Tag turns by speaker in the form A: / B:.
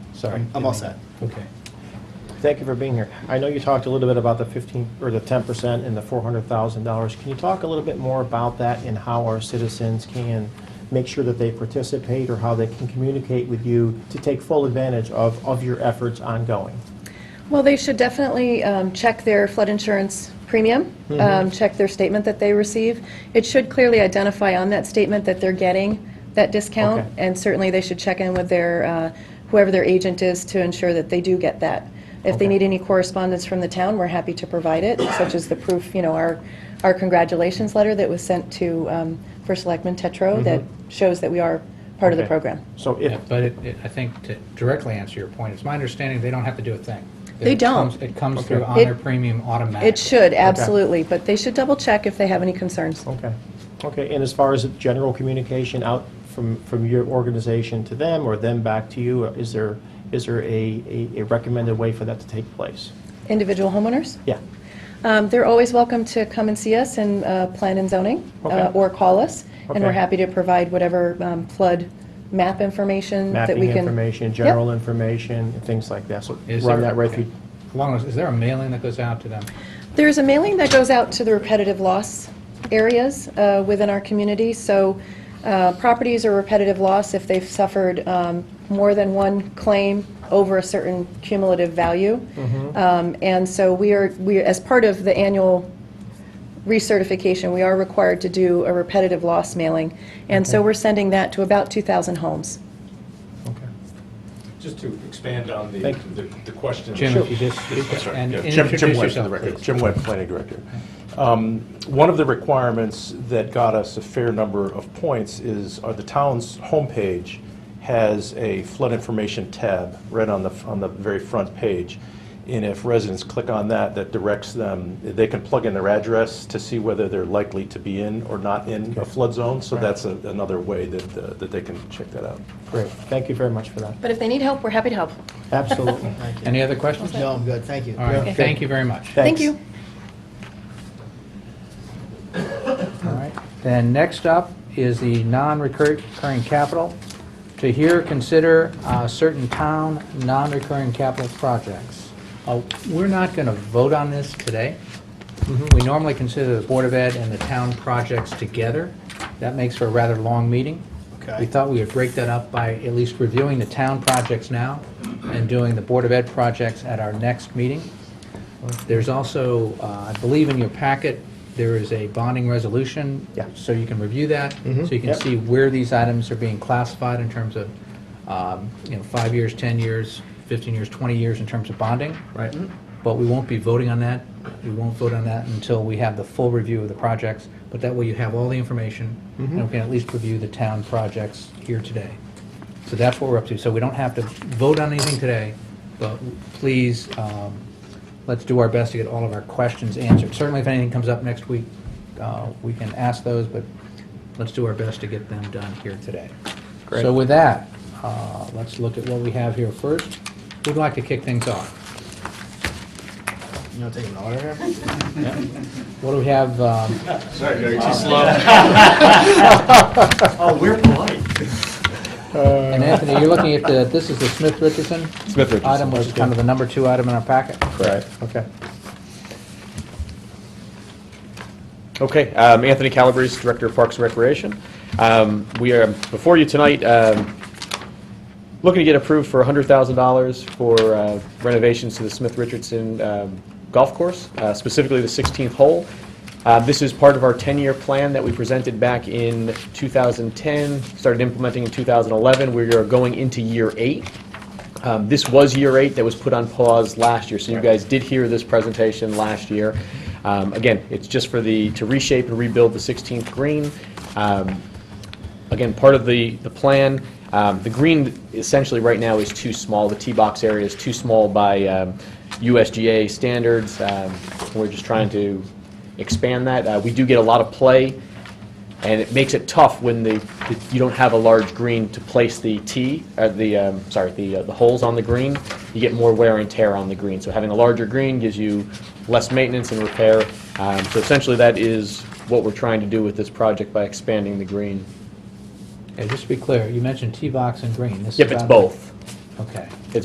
A: Sorry.
B: I'm all set.
A: Okay. Thank you for being here. I know you talked a little bit about the 15, or the 10% and the $400,000. Can you talk a little bit more about that and how our citizens can make sure that they participate or how they can communicate with you to take full advantage of, of your efforts ongoing?
C: Well, they should definitely um, check their flood insurance premium,
A: Mm-hmm.
C: um, check their statement that they receive. It should clearly identify on that statement that they're getting that discount,
A: Okay.
C: and certainly they should check in with their, uh, whoever their agent is to ensure that they do get that. If they
A: Okay.
C: need any correspondence from the town, we're happy to provide it, such as the proof, you know, our, our congratulations letter that was sent to um, First Selectman Tetro that shows that we are part of the
A: Mm-hmm. Okay.
C: program.
A: So
D: Yeah,
A: if,
D: But it, it- I think to directly answer your point, it's my understanding they don't have to do a thing.
C: They
D: It comes-
C: don't.
D: It comes through
A: Okay.
D: on their
C: It-
D: premium automatically.
C: It should, absolutely, but they should double-check if they have any concerns.
A: okay, okay. And as far as general communication out from, from your organization to them or them back to you, is there, is there a, a a recommended way for that to take place?
C: Individual homeowners?
A: Yeah,
C: Um, They're always welcome to come and see us in uh, Plan and Zoning,
A: Okay.
C: uh, or call us, and we're
A: Okay.
C: happy to provide whatever um, flood map information that
A: mapping
C: we can...
A: information, general information, and things like that. So
D: Is
A: run
D: there-
A: that right
D: okay.
A: through,
D: Along those, is there a mailing that goes out to them?
C: There's a mailing that goes out to the repetitive loss areas uh, within our community, so uh, properties are repetitive loss if they've suffered um, more than one claim over a certain cumulative value. Um, And so we are, we, as part of the annual recertification, we are required to do a repetitive loss mailing, and so we're sending that to about 2,000 homes.
A: Okay.
E: Just to expand on the,
A: Thank
E: the the question.
D: Jim, if you just
E: I'm sorry.
D: and
E: Yeah, Jim- Jim
D: introduce
E: Webb,
D: yourself,
E: for the record.
D: please.
E: Jim Webb, Planning Director. Um, One of the requirements that got us a fair number of points is, uh the town's homepage has a flood information tab right on the, on the very front page. And if residents click on that, that directs them, they can plug in their address to see whether they're likely to be in or not in a flood zone. So that's a- another way that, uh, that they can check that out.
A: Great, thank you very much for that.
C: But if they need help, we're happy to help.
A: Absolutely.
D: Any other questions?
B: No, I'm good, thank you.
D: All right, thank you very much.
C: Thank
A: Thanks.
C: you.
D: All right. Then next up is the non-recurring capital. To hear, consider uh, certain town non-recurring capital projects. Uh, We're not going to vote on this today. We normally consider the Board of Ed and the town projects together. That makes for a rather long meeting.
B: Okay.
D: We thought we would break that up by at least reviewing the town projects now and doing the Board of Ed projects at our next meeting. There's also, uh, I believe in your packet, there is a bonding resolution.
A: Yeah.
D: So you can review that, so you can
A: Yep.
D: see where these items are being classified in terms of, um, you know, five years, 10 years, 15 years, 20 years in terms of bonding. Right. But we won't be voting on that. We won't vote on that until we have the full review of the projects. But that way you have all the information, and we can at least review the town projects here today. So that's what we're up to. So we don't have to vote on anything today, but please, um, let's do our best to get all of our questions answered. Certainly, if anything comes up next week, uh, we can ask those, but let's do our best to get them done here today.
A: Great.
D: So with that, uh, let's look at what we have here first. Who'd like to kick things off?
B: You want to take an order here?
D: What do we have? um,
B: Oh, we're polite.
D: Uh, And Anthony, you're looking at the, this is the Smith Richardson? Smith Richardson. Item, which is kind of the number two item in our packet.
F: Right.
A: Okay.
F: Okay, um, Anthony Calabrese, Director of Parks and Recreation. Um, We are before you tonight, um, looking to get approved for $100,000 for uh, renovations to the Smith Richardson um, Golf Course, uh, specifically the 16th hole. Uh, This is part of our 10-year plan that we presented back in 2010, started implementing in 2011. We are going into year eight. Um, This was year eight that was put on pause last year, so you guys did hear this presentation last year. Um, Again, it's just for the, to reshape and rebuild the 16th green. Um, Again, part of the, the plan, um, the green essentially right now is too small, the tee box area is too small by um, USGA standards. Um, We're just trying to expand that. Uh, We do get a lot of play and it makes it tough when the, you don't have a large green to place the tee, uh, the, um, sorry, the, uh, the holes on the green. You get more wear and tear on the green. So having a larger green gives you less maintenance and repair. Um, So essentially, that is what we're trying to do with this project by expanding the green.
D: And just to be clear, you mentioned tee box and green. This is
F: Yep, it's
D: on-
F: both.
D: Okay.